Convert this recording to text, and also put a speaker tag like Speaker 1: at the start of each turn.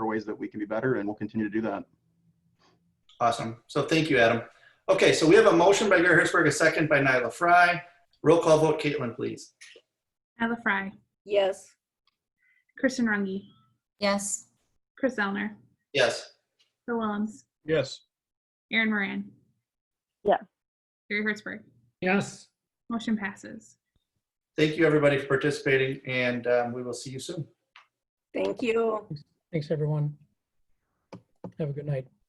Speaker 1: ways that we can be better, and we'll continue to do that.
Speaker 2: Awesome. So thank you, Adam. Okay, so we have a motion by Gary Hertzberg, a second by Nyla Fry. Roll call vote, Caitlin, please.
Speaker 3: Nyla Fry,
Speaker 4: Yes.
Speaker 3: Kristen Runge,
Speaker 5: Yes.
Speaker 3: Chris Zellner,
Speaker 2: Yes.
Speaker 3: Bill Willems,
Speaker 6: Yes.
Speaker 3: Aaron Moran.
Speaker 4: Yeah.
Speaker 3: Gary Hertzberg.
Speaker 6: Yes.
Speaker 3: Motion passes.
Speaker 2: Thank you, everybody, for participating, and um, we will see you soon.
Speaker 4: Thank you.
Speaker 7: Thanks, everyone. Have a good night.